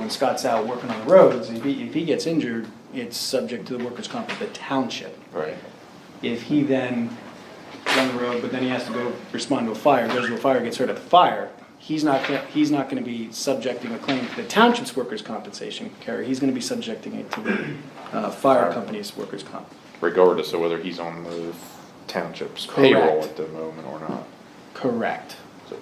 when Scott's out working on the roads, if he, if he gets injured, it's subject to the workers' comp of the township. Right. If he then is on the road, but then he has to go respond to a fire, goes to a fire, gets hurt at the fire, he's not, gonna- he's not gonna be subjecting a claim to the township's workers' compensation carrier, he's gonna be subjecting it to the, uh, fire company's workers' comp. Regardless of whether he's on the township's payroll Correct. at the moment or not. Correct. So,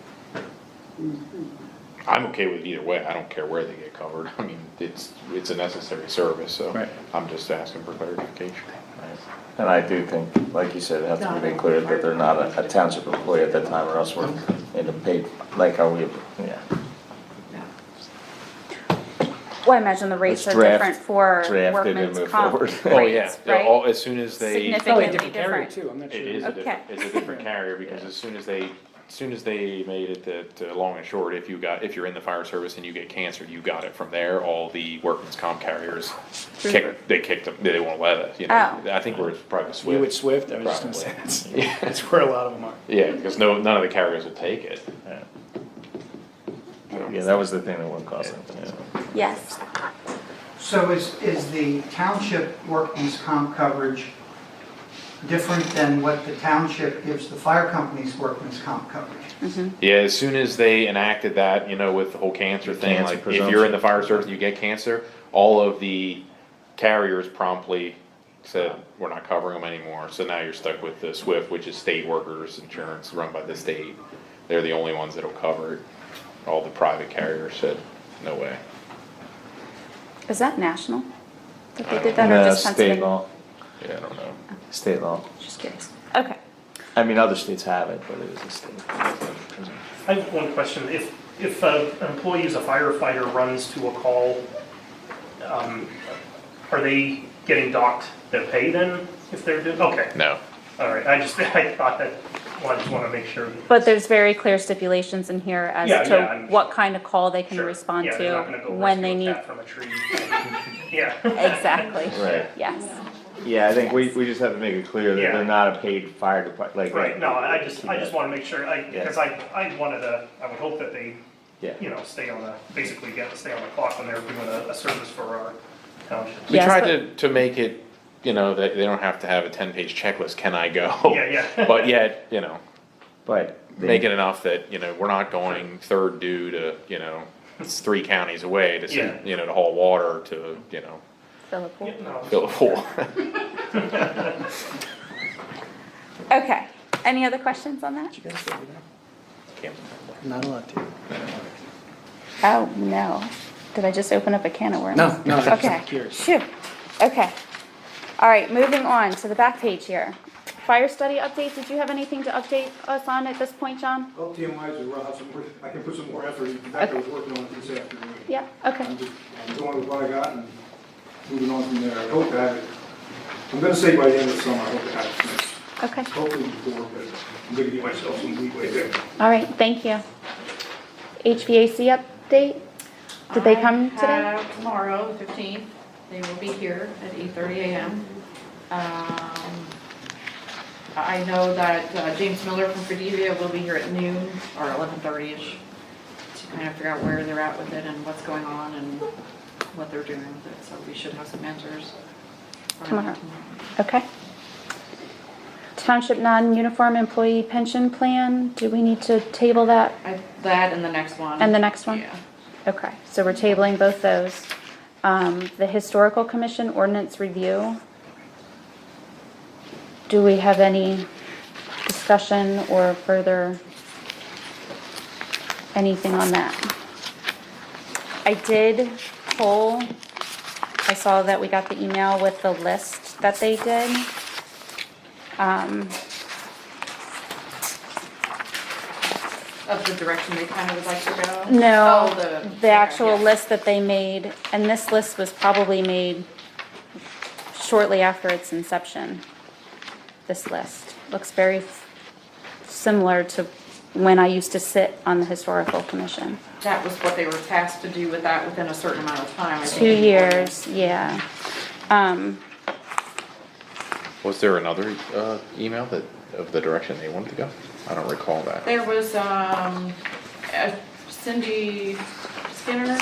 I'm okay with either way, I don't care where they get covered, I mean, it's, it's a necessary service, so Right. I'm just asking for clarification. And I do think, like you said, it has to be made clear that they're not a- a township employee at that time or else we're in a paid, like how we, yeah. Well, I imagine the rates are Let's draft- different for draft it and workman's move comp forward. rates, Oh, They're all- right? As soon as they, it Probably a Significantly different carrier different. too, I'm not sure. is a different, Okay. it's a different carrier, because as soon as they, as soon as they made it that uh, long and short, if you got, if you're in the fire service and you get cancer, you got it from there, all the workman's comp carriers kick, they kicked them, they won't let us, you know, Oh. I think we're probably You would Swift. Swift, I was just gonna say, Probably. that's, that's where a lot of them are. Yeah, because no, none of the carriers will take it. Yeah, that was the thing that would cause it, yeah. Yes, So is, is the township workman's comp coverage different than what the township gives the fire company's workman's comp coverage? Yeah, as soon as they enacted that, you know, with the whole cancer thing, Cancer like if you're in the presumption. fire service and you get cancer, all of the carriers promptly said, we're not covering them anymore. So now you're stuck with the SWIFT, which is state workers insurance run by the state. They're the only ones that'll cover it. All the private carriers said, no way. is that national? That they did that or No, just uh, state Pennsylvania? law, Yeah, I don't know. state law. Just curious. Okay. I mean, other states have it, but it is a state. I have one question. If, if a- an employee is a firefighter runs to a call, um, are they getting docked their pay then if they're doing, okay, No. all right. I just, I thought that, well, I just want to make sure. that- But there's very clear stipulations in here as Yeah, yeah, to I'm- what kind of call they can Sure. respond Yeah, they're not to, gonna go when they rescue need, a cat From a tree. Yeah. exactly, Right. yes. Yeah, I think we, we just have to make it clear that Yeah. they're not a paid fire department, like. Right, no, I just, I just want to make sure, I, because I, I wanted to, I would hope that they, Yeah. you know, stay on the, basically get, stay on the clock when they're doing a, a service for our township. We Yes, tried but- to, to make it, you know, that they don't have to have a ten page checklist, can I go? Yeah, yeah. But yet, you know, But. they- make it enough that, you know, we're not going third due to, you know, it's three counties away to, see- Yeah. you know, to haul water to, you know, Philip, Yeah, no. fill a pool. okay, any other questions on that? Not a lot to. Oh, no. Did I just open up a can of worms? No, no, I'm just Okay. curious. Phew. Okay. All right, moving on to the back page here. Fire study update, did you have anything to update us on at this point, John? Well, TMI is, I'll have some, more- I can put some more effort, in fact, I was working on it this afternoon. Yeah, I'm okay. just, I'm going with what I got and moving on from there, I hope to have it, I'm gonna say by the end of summer, I hope to have it finished. Okay. Hopefully before, but I'm gonna give myself some leeway there. All right, thank you. HVAC update? Did they come I today? have Tomorrow, the fifteenth, they will be here at eight thirty AM. Um, I know that uh, James Miller from Fredevia will be here at noon or eleven thirty-ish to kind of figure out where they're at with it and what's going on and what they're doing with it, so we should have some answers. for them Tomorrow. Okay. Township non-uniform employee pension plan, do we need to table that? I- That and the next one. And the next one? Yeah. Okay, so we're tabling both those. Um, the historical commission ordinance review. Do we have any discussion or further anything on that? I did pull, I saw that we got the email with the list that they did. Um, Of the direction they kind of would like to go? No, Oh, the. the okay, actual yeah. list that they made, and this list was probably made shortly after its inception. This list looks very f- similar to when I used to sit on the historical commission. That was what they were tasked to do with that within a certain amount of time. I think. Two years, yeah. Um, Was there another, uh, email that, of the direction they wanted to go? I don't recall that. There was, um, uh, Cindy Skinner